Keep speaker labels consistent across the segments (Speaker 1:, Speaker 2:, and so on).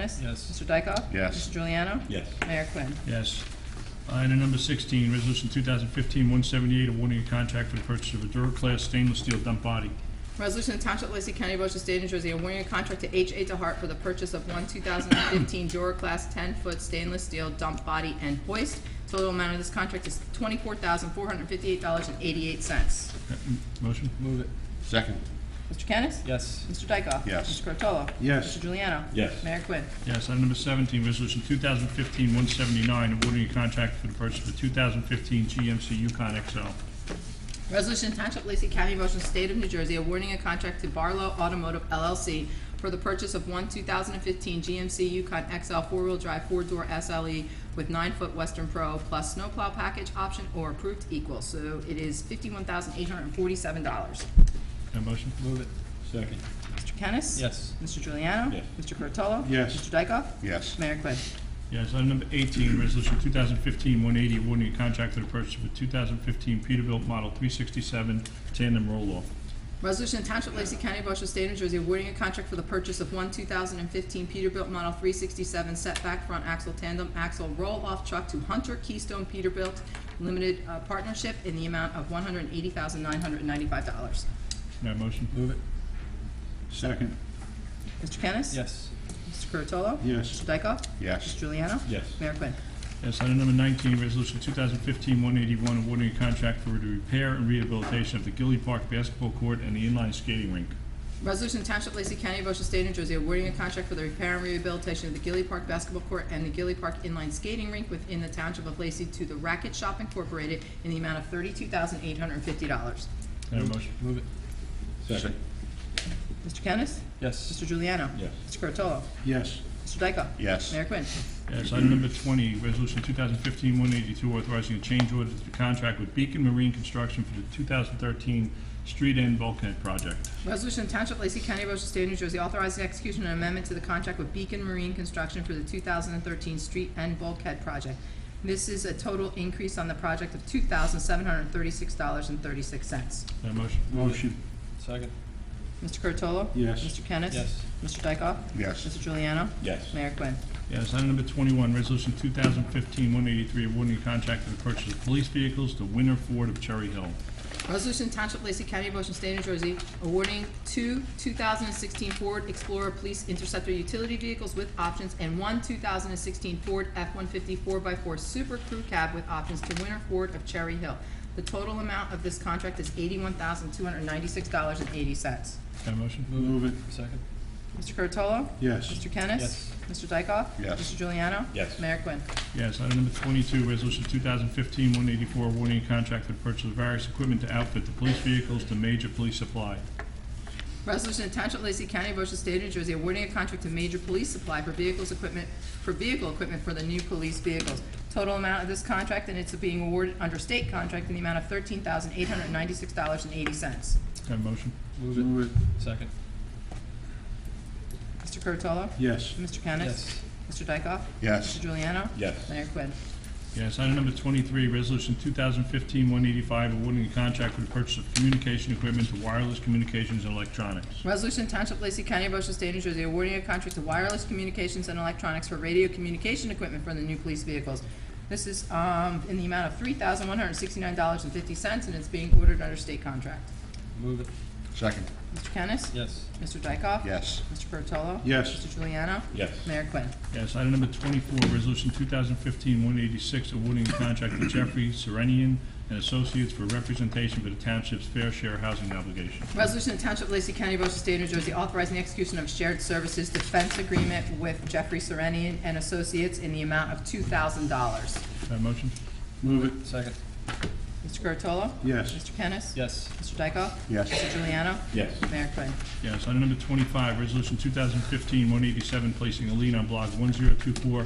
Speaker 1: Kennis?
Speaker 2: Yes.
Speaker 1: Mr. Dykoff?
Speaker 3: Yes.
Speaker 1: Mr. Juliano?
Speaker 4: Yes.
Speaker 1: Mayor Quinn.
Speaker 2: Yes. Item number 16, Resolution 2015-178, awarding a contract for the purchase of a Duraclass stainless steel dump body.
Speaker 1: Resolution to Township of Lacey County, Ocean State, New Jersey, awarding a contract to H.A. DeHart for the purchase of one 2015 Dura Class 10-foot stainless steel dump body and hoist. Total amount of this contract is $24,458.88. Mr.
Speaker 2: Uh, m- Motion?
Speaker 4: Move it.
Speaker 3: Second,
Speaker 1: Kennis?
Speaker 4: Yes.
Speaker 1: Mr. Dykoff?
Speaker 3: Yes.
Speaker 1: Mr. Curatolo?
Speaker 3: Yes.
Speaker 1: Mr. Juliano?
Speaker 4: Yes.
Speaker 1: Mayor Quinn.
Speaker 2: Yes. Item number 17, Resolution 2015-179, awarding a contract for the purchase of a 2015 GMC Yukon XL.
Speaker 1: Resolution Township of Lacey County, Motion State of New Jersey, awarding a contract to Barlow Automotive LLC for the purchase of one 2015 GMC Yukon XL four-wheel drive four-door SLE with nine-foot Western Pro plus snowplow package option or approved equal. So it is $51,847. Mr.
Speaker 2: Have a motion?
Speaker 4: Move it. Second.
Speaker 1: Kennis?
Speaker 4: Yes.
Speaker 1: Mr. Juliano?
Speaker 4: Yes.
Speaker 1: Mr. Curatolo?
Speaker 3: Yes.
Speaker 1: Mr. Dykoff?
Speaker 3: yes.
Speaker 1: Mayor Quinn.
Speaker 2: Yes. Item number 18, Resolution 2015-180, awarding a contract for the purchase of a 2015 Peterbilt Model 367 tandem roll-off.
Speaker 1: Resolution Township of Lacey County, Ocean State, New Jersey, awarding a contract for the purchase of one 2015 Peterbilt Model 367 setback front axle tandem axle roll-off truck to Hunter Keystone Peterbilt Limited uh, Partnership in the amount of $180,995.
Speaker 2: Can I have a motion?
Speaker 4: Move it.
Speaker 3: Second,
Speaker 1: Mr. Kennis?
Speaker 4: Yes.
Speaker 1: Mr. Curatolo?
Speaker 3: Yes.
Speaker 1: Mr. Dykoff? Mr.
Speaker 3: yes.
Speaker 1: Juliano?
Speaker 4: Yes.
Speaker 1: Mayor Quinn.
Speaker 2: Yes, item number 19, resolution 2015-181, awarding a contract for the repair and rehabilitation of the Gilly Park basketball court and the inline skating rink.
Speaker 1: Resolution Township of Lacey County, Ocean State, New Jersey, awarding a contract for the repair and rehabilitation of the Gilly Park Basketball Court and the Gilly Park Inline Skating Rink within the Township of Lacey to the Racket Shop Incorporated in the amount of thirty-two thousand eight hundred and fifty dollars.
Speaker 2: Can I have a motion?
Speaker 4: Move it. Second.
Speaker 1: Mr. Kennis?
Speaker 4: Yes.
Speaker 1: Mr. Juliano?
Speaker 4: Yes.
Speaker 1: Mr. Curatolo?
Speaker 3: Yes.
Speaker 1: Mr. Dykoff?
Speaker 3: Yes.
Speaker 1: Mayor Quinn.
Speaker 2: Yes, item number 20, resolution 2015-182, authorizing a change order to the contract with Beacon Marine Construction for the 2013 street end bulkhead project.
Speaker 1: Resolution to Township of Lacey County, Ocean State, New Jersey, authorizing execution and amendment to the contract with Beacon Marine Construction for the 2013 Street and Bulkhead Project. This is a total increase on the project of $2,736.36.
Speaker 2: Can I have a motion?
Speaker 3: Motion,
Speaker 4: Second.
Speaker 1: Mr. Curatolo?
Speaker 3: Yes.
Speaker 1: Mr. Kennis?
Speaker 4: Yes.
Speaker 1: Mr. Dykoff?
Speaker 3: Yes.
Speaker 1: Mr. Juliano?
Speaker 4: Yes.
Speaker 1: Mayor Quinn.
Speaker 2: Yes, item number 21, resolution 2015-183, awarding a contract for the purchase of police vehicles to Winter Ford of Cherry Hill.
Speaker 1: Resolution Township of Lacey County, Ocean State, New Jersey, awarding two 2016 Ford Explorer Police Interceptor Utility Vehicles with options and one 2016 Ford F-150 4x4 Super Crew Cab with options to Winter Ford of Cherry Hill. The total amount of this contract is $81,296.80.
Speaker 2: Can I have a motion?
Speaker 3: move it,
Speaker 4: Second.
Speaker 1: Mr. Curatolo?
Speaker 3: yes.
Speaker 1: Mr. Kennis?
Speaker 4: Yes.
Speaker 1: Mr. Dykoff?
Speaker 3: Yes.
Speaker 1: Mr. Juliano?
Speaker 4: Yes.
Speaker 1: Mayor Quinn.
Speaker 2: Yes, item number twenty-two, resolution 2015-184, awarding a contract for the purchase of various equipment to outfit the police vehicles to major police supply.
Speaker 1: Resolution to Township of Lacey County, Ocean State, New Jersey, awarding a contract to Major Police Supply for vehicles equipment, for vehicle equipment for the new police vehicles. Total amount of this contract, and it's being awarded under state contract in the amount of thirteen thousand eight hundred ninety-six dollars and eighty cents.
Speaker 2: Can I have a motion?
Speaker 3: Move it,
Speaker 4: Second.
Speaker 1: Mr. Curatolo?
Speaker 3: yes.
Speaker 1: Mr. Kennis?
Speaker 4: Yes.
Speaker 1: Mr. Dykoff? Mr.
Speaker 3: Yes,
Speaker 1: Juliano?
Speaker 4: Yes.
Speaker 1: Mayor Quinn.
Speaker 2: Yes, item number twenty-three, resolution 2015-185, awarding a contract for the purchase of communication equipment to wireless communications and electronics.
Speaker 1: Resolution to Township of Lacey County, Ocean State, New Jersey, awarding a contract to wireless communications and electronics for radio communication equipment for the new police vehicles. This is um, in the amount of three thousand one hundred sixty-nine dollars and fifty cents, and it's being ordered under state contract.
Speaker 4: Move it.
Speaker 3: second,
Speaker 1: Mr. Kennis?
Speaker 4: Yes.
Speaker 1: Mr. Dykoff?
Speaker 3: yes.
Speaker 1: Mr. Curatolo?
Speaker 3: Yes.
Speaker 1: Mr. Juliano?
Speaker 4: Yes.
Speaker 1: Mayor Quinn.
Speaker 2: Yes, item number twenty-four, resolution 2015-186, awarding a contract to Jeffrey Serenian and Associates for representation for the township's fair share housing obligation.
Speaker 1: Resolution to Township of Lacey County, Ocean State, New Jersey, authorizing the execution of shared services defense agreement with Jeffrey Serenian and Associates in the amount of two thousand dollars.
Speaker 2: Can I have a motion?
Speaker 3: Move it,
Speaker 4: Second.
Speaker 1: Mr. Curatolo?
Speaker 3: yes.
Speaker 1: Mr. Kennis?
Speaker 4: Yes.
Speaker 1: Mr. Dykoff?
Speaker 3: Yes,
Speaker 1: Mr. Juliano?
Speaker 4: Yes.
Speaker 1: Mayor Quinn.
Speaker 2: Yes, item number twenty-five, resolution 2015-187, placing a lien on block one zero two four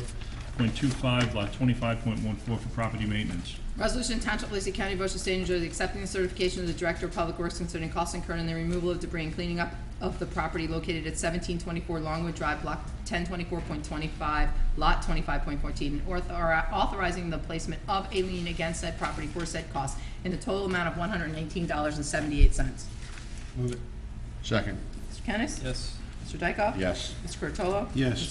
Speaker 2: point two five, lot twenty-five point one four for property maintenance.
Speaker 1: Resolution Township of Lacey County, Ocean State, New Jersey, accepting the certification of the Director of Public Works concerning costs incurred in the removal of debris and cleaning up of the property located at seventeen twenty-four Longwood Drive, block ten twenty-four point twenty-five, lot twenty-five point fourteen, and author- authorizing the placement of a lien against said property for said costs in the total amount of one hundred and eighteen dollars and seventy-eight cents.
Speaker 4: Move it.
Speaker 3: second,
Speaker 1: Mr. Kennis?
Speaker 4: Yes.
Speaker 1: Mr. Dykoff?
Speaker 3: yes.
Speaker 1: Mr. Curatolo?
Speaker 3: Yes.
Speaker 1: Mr.